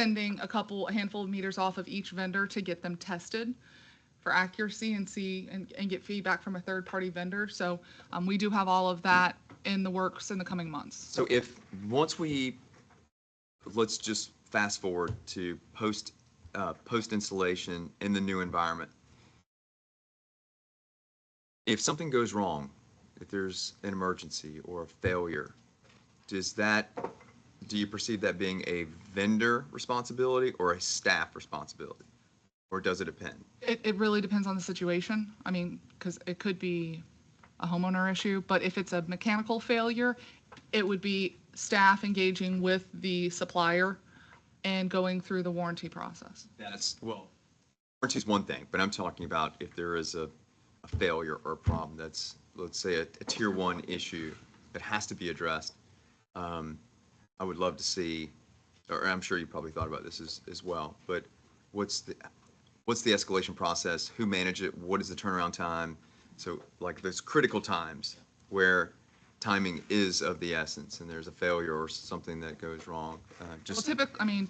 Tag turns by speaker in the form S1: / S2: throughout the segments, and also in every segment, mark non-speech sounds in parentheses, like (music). S1: sending a couple, a handful of meters off of each vendor to get them tested for accuracy and see, and, and get feedback from a third-party vendor. So, um, we do have all of that in the works in the coming months.
S2: So if, once we, let's just fast forward to post, uh, post installation in the new environment. If something goes wrong, if there's an emergency or a failure, does that, do you perceive that being a vendor responsibility or a staff responsibility? Or does it depend?
S1: It, it really depends on the situation. I mean, because it could be a homeowner issue, but if it's a mechanical failure, it would be staff engaging with the supplier and going through the warranty process.
S2: That's, well. Warranty is one thing, but I'm talking about if there is a, a failure or a problem that's, let's say, a, a tier one issue that has to be addressed. Um, I would love to see, or I'm sure you probably thought about this as, as well, but what's the, what's the escalation process? Who manage it? What is the turnaround time? So like those critical times where timing is of the essence and there's a failure or something that goes wrong, uh,
S1: Well,
S2: just.
S1: typically, I mean,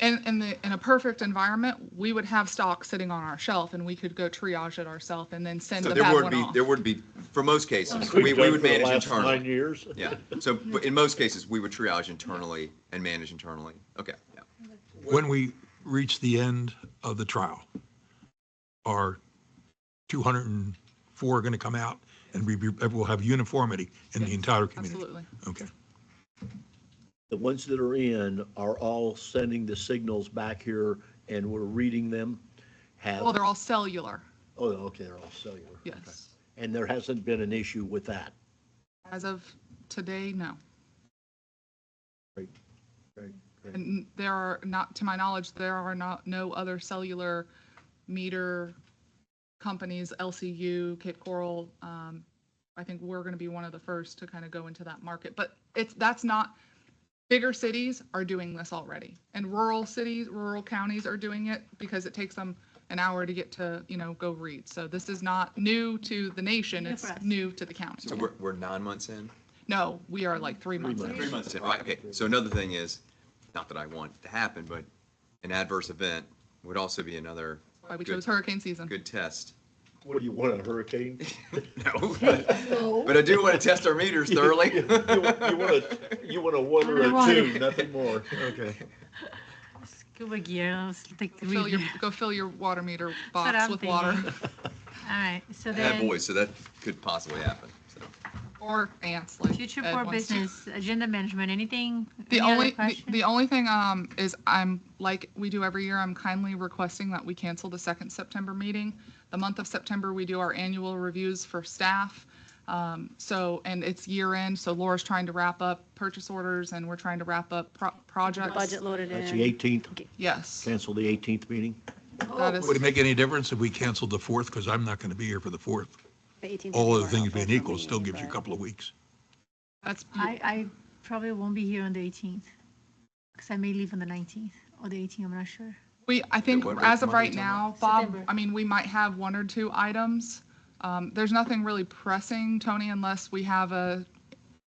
S1: in, in the, in a perfect environment, we would have stock sitting on our shelf and we could go triage it ourselves and then send
S2: So
S1: the
S2: there
S1: bad
S2: would
S1: one
S2: be,
S1: off.
S2: there would be, for most cases,
S3: Like
S2: we,
S3: we've
S2: we
S3: done
S2: would
S3: for the
S2: manage
S3: last Nine
S2: internally.
S3: years.
S2: Yeah, so but in most cases, we would triage internally and manage internally. Okay, yeah.
S4: when we reach the end of the trial, are 204 going to come out and we, we- we'll have uniformity in the entire community?
S1: Absolutely.
S4: Okay.
S3: The ones that are in are all sending the signals back here and we're reading them. Have,
S1: Well, they're
S3: oh,
S1: all cellular,
S3: okay, they're all cellular.
S1: yes.
S3: And there hasn't been an issue with that.
S1: As of today, no.
S3: Great, great, great.
S1: And there are not, to my knowledge, there are not, no other cellular meter companies, LCU, Cape Coral. um, I think we're going to be one of the first to kind of go into that market, but it's, that's not, bigger cities are doing this already. And rural cities, rural counties are doing it because it takes them an hour to get to, you know, go read. So this is not new to the nation,
S5: New for
S1: it's
S5: us.
S1: new to the
S2: So
S1: county.
S2: we're, we're nine months in?
S1: No, we are like three months in.
S2: Three months in, right, okay. So another thing is, not that I want it to happen, but an adverse event would also be another
S1: Why we
S2: Good.
S1: chose hurricane season.
S2: good test. (laughs)
S3: What do you want,
S1: (laughs)
S3: a hurricane?
S2: No, but I do want to test our meters
S3: (laughs)
S2: thoroughly.
S3: You want a,
S1: (laughs)
S3: you want a one or a two, nothing more. Okay.
S5: Scuba gear, I was like,
S1: Fill
S5: really- (laughs)
S1: your, go fill your water meter
S5: what
S1: box
S5: I'm
S1: with water
S5: thinking. All right, so
S2: Yeah, boy,
S5: then,
S2: so that could possibly happen, so.
S1: (laughs) or ants like
S5: future
S1: Ed
S5: for
S1: wants to.
S5: business, agenda management, anything?
S1: The
S5: any other
S1: only, the-
S5: question?
S1: the only thing, um, is I'm, like we do every year, I'm kindly requesting that we cancel the second September meeting. The month of September, we do our annual reviews for staff. Um, so, and it's year end, so Laura's trying to wrap up purchase orders and we're trying to wrap up pro- projects.
S6: Budget loaded
S3: That's the
S6: in.
S3: 18th,
S1: Yes,
S3: cancel the 18th meeting?
S1: that is,
S4: Would it make any difference if we canceled the 4th? Because I'm not going to be here for the 4th.
S6: The 18th
S4: All
S6: is
S4: other things
S6: our
S4: being
S6: open
S4: equal, still
S6: meeting,
S4: gives you a
S6: but-
S4: couple of weeks.
S1: that's,
S5: I, I probably won't be here on the 18th, because I may leave on the 19th or the 18th, I'm not sure.
S1: We, I think
S2: what-
S1: as of
S2: what are we
S1: right
S2: talking
S1: now, Bob,
S5: September.
S1: I mean, we might have one or two items. Um, There's nothing really pressing, Tony, unless we have a,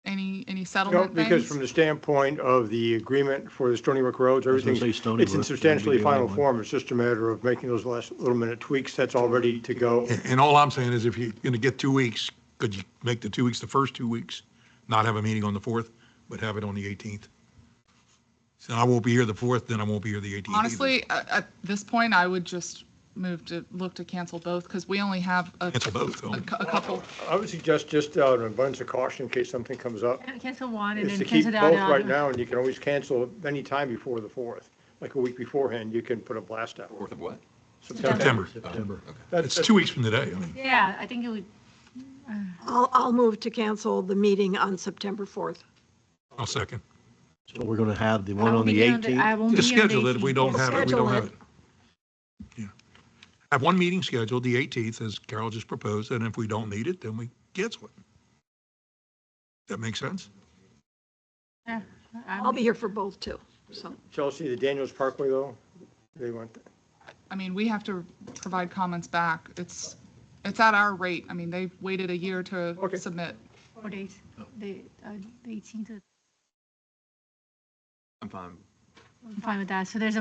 S1: any, any
S7: No,
S1: settlement
S7: because from
S1: things.
S7: the standpoint of the agreement for the Stony Brook roads,
S3: was gonna
S7: everything,
S3: say Stony
S7: it's in
S3: Brook, that'd be
S7: substantially
S3: the
S7: final
S3: only one.
S7: form. It's just a matter of making those last little minute tweaks. That's all ready to go.
S3: (laughs)
S4: And, and all I'm saying is if you're going to get two weeks, could you make the two weeks, the first two weeks, not have a meeting on the 4th, but have it on the 18th? So I won't be here the 4th, then I won't be here the 18th. either.
S1: Honestly, at, at this point, I would just move to, look to cancel both because we only have a,
S4: Cancel both.
S1: a
S4: so-
S1: cou- a couple.
S7: I would suggest just uh, an abundance of caution in case something comes up,
S5: Can- Cancel one and then
S7: is to keep
S5: cancel
S7: both
S5: the other.
S7: right now, and you can always cancel any time before the 4th. Like a week beforehand, you can put a blast out.
S2: Fourth of what?
S4: September.
S3: September.
S4: It's two weeks from today. I mean.
S5: Yeah, I think it would,
S8: I'll, I'll move to cancel the meeting on September 4th.
S4: I'll second.
S3: So we're going to have the
S5: I
S3: one
S5: won't
S3: on
S5: be
S3: the
S5: here on the,
S3: 18th?
S5: I won't be
S4: Just
S5: here on the 18th.
S4: schedule it. If we don't have it, we
S8: Schedule
S4: don't have
S8: it.
S4: it. Yeah. Have one meeting scheduled, the 18th, as Carol just proposed, and if we don't need it, then we cancel it. That makes sense?
S5: Yeah, I'm-
S8: I'll be here for both too, so.
S7: Chelsea, the Daniels Parkway, though, they want,
S1: I mean, we have to provide comments back. It's, it's at our rate. I mean, they've waited a year to
S7: Okay.
S1: submit.
S5: Four days, the, uh, the 18th.
S2: I'm fine.
S5: I'm fine with that. So there's a